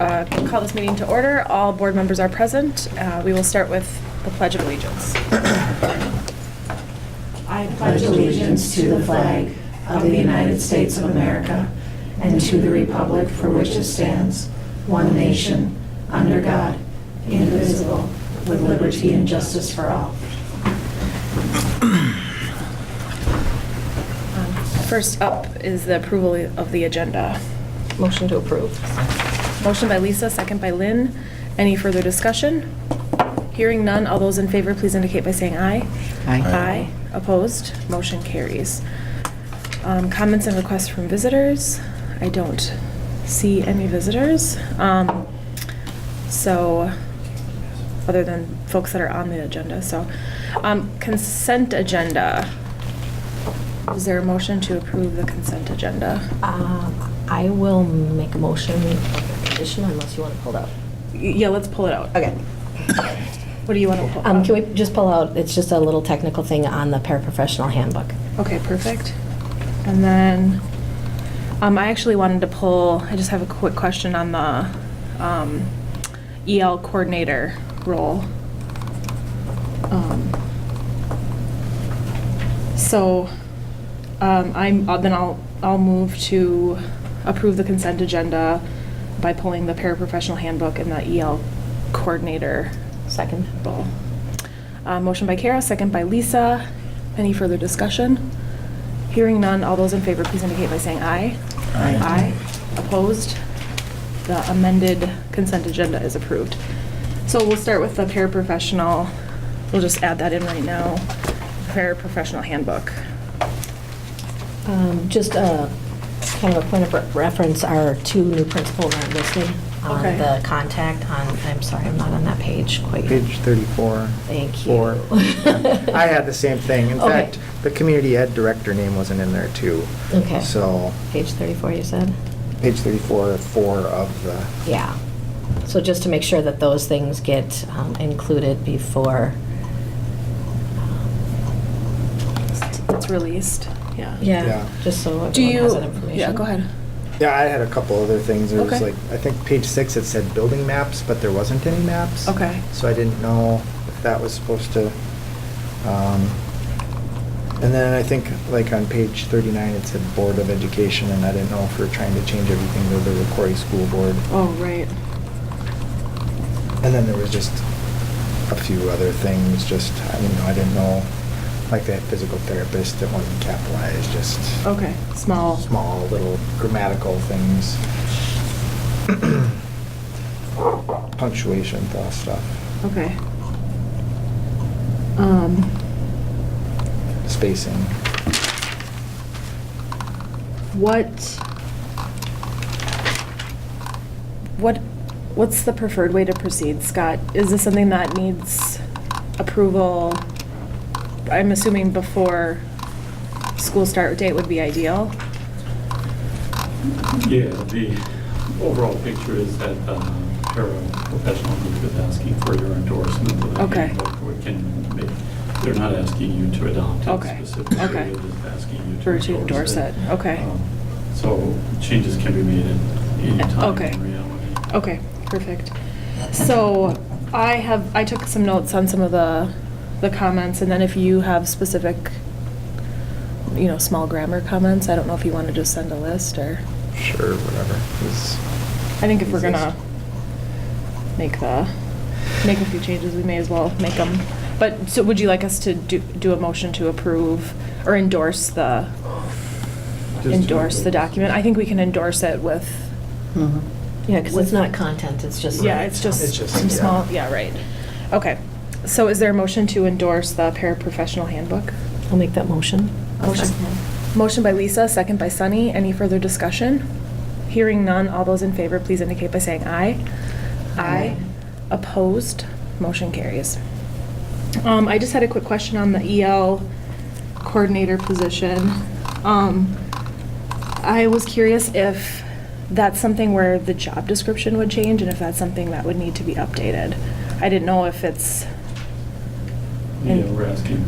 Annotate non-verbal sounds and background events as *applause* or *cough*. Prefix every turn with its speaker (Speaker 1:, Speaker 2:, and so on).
Speaker 1: uh, call this meeting to order. All board members are present. Uh, We will start with the Pledge of Allegiance.
Speaker 2: I pledge allegiance to the flag of the United States of America and to the republic for which it stands, one nation, under God, indivisible, with liberty and justice for all.
Speaker 1: Um, First up is the approval of the agenda.
Speaker 3: Motion to approve.
Speaker 1: Motion by Lisa, second by Lynn. Any further discussion? Hearing none, all those in favor, please indicate by saying aye.
Speaker 4: Aye.
Speaker 1: Aye. Opposed? Motion carries. Um, Comments and requests from visitors? I don't see any visitors. Um, So, other than folks that are on the agenda, so. um, Consent agenda. Is there a motion to approve the consent agenda?
Speaker 3: Uh, I will make a motion addition unless you want to pull it out.
Speaker 1: Y- Yeah, let's pull it out.
Speaker 3: *coughs* Okay.
Speaker 1: What do you want to pull?
Speaker 3: Um, can we just pull out, it's just a little technical thing on the paraprofessional handbook.
Speaker 1: Okay, perfect. And then, um, I actually wanted to pull, I just have a quick question on the, um, EL coordinator role. Um, So, um, I'm, I'll- then I'll, I'll move to approve the consent agenda by pulling the paraprofessional handbook and the EL coordinator
Speaker 3: Second.
Speaker 1: roll. Uh, Motion by Kara, second by Lisa. Any further discussion? Hearing none, all those in favor, please indicate by saying aye.
Speaker 4: Aye.
Speaker 1: Opposed? The amended consent agenda is approved. So we'll start with the paraprofessional. We'll just add that in right now. Paraprofessional handbook.
Speaker 3: Um, Just uh, kind of a point of re- reference, our two new principals aren't listed on
Speaker 1: Okay.
Speaker 3: the contact on, I'm sorry, I'm not on that page quite.
Speaker 4: Page 34.
Speaker 3: Thank you. *laughs*
Speaker 4: Four. I had the same thing. In
Speaker 3: Okay.
Speaker 4: fact, the community ed director name wasn't in there too.
Speaker 3: Okay.
Speaker 4: So,
Speaker 3: Page 34, you said?
Speaker 4: page 34, four of the,
Speaker 3: Yeah. So just to make sure that those things get um, included before, um,
Speaker 1: It's released, yeah.
Speaker 4: Yeah.
Speaker 3: yeah, just so
Speaker 1: Do
Speaker 3: everyone
Speaker 1: you?
Speaker 3: has that information.
Speaker 1: Yeah, go ahead.
Speaker 4: yeah, I had a couple other things. There was
Speaker 1: Okay.
Speaker 4: like, I think page six, it said building maps, but there wasn't any maps.
Speaker 1: Okay.
Speaker 4: So I didn't know if that was supposed to, um, and then I think like on page 39, it said Board of Education, and I didn't know if we were trying to change everything to the Recorder School Board.
Speaker 1: Oh, right.
Speaker 4: And then there was just a few other things, just, I didn't know, I didn't know, like that physical therapist that wasn't capitalized, just
Speaker 1: Okay, small.
Speaker 4: small little grammatical things. *clears throat* Punctuation, thought stuff,
Speaker 1: Okay. Um,
Speaker 4: spacing.
Speaker 1: What, what, what's the preferred way to proceed, Scott? Is this something that needs approval? I'm assuming before school start date would be ideal?
Speaker 5: Yeah, the overall picture is that um, paraprofessional group is asking for your endorsement of the
Speaker 1: Okay.
Speaker 5: handbook. We can make, they're not asking you to adopt
Speaker 1: Okay,
Speaker 5: it specifically.
Speaker 1: okay.
Speaker 5: They're just asking you to
Speaker 1: For
Speaker 5: endorse it.
Speaker 1: to endorse it, okay.
Speaker 5: Um, So changes can be made at any time
Speaker 1: Okay. Oh,
Speaker 5: in reality.
Speaker 1: Okay, perfect. So I have, I took some notes on some of the, the comments, and then if you have specific, you know, small grammar comments, I don't know if you want to just send a list or,
Speaker 4: Sure, whatever. It's-
Speaker 1: I think if we're gonna make the, make a few changes, we may as well make them. But, so would you like us to do, do a motion to approve or endorse the,
Speaker 5: to
Speaker 1: endorse the
Speaker 5: endorse.
Speaker 1: document? I think we can endorse it with,
Speaker 3: Yeah, because it's not content, it's just.
Speaker 1: yeah, it's just
Speaker 4: It's just,
Speaker 1: some
Speaker 4: yeah.
Speaker 1: small, yeah, right. Okay, so is there a motion to endorse the paraprofessional handbook?
Speaker 3: I'll make that motion.
Speaker 1: Motion. Motion by Lisa, second by Sunny. Any further discussion? Hearing none, all those in favor, please indicate by saying aye. Aye. Opposed? Motion carries. Um, I just had a quick question on the EL coordinator position. Um, I was curious if that's something where the job description would change and if that's something that would need to be updated. I didn't know if it's.
Speaker 5: Yeah, we're asking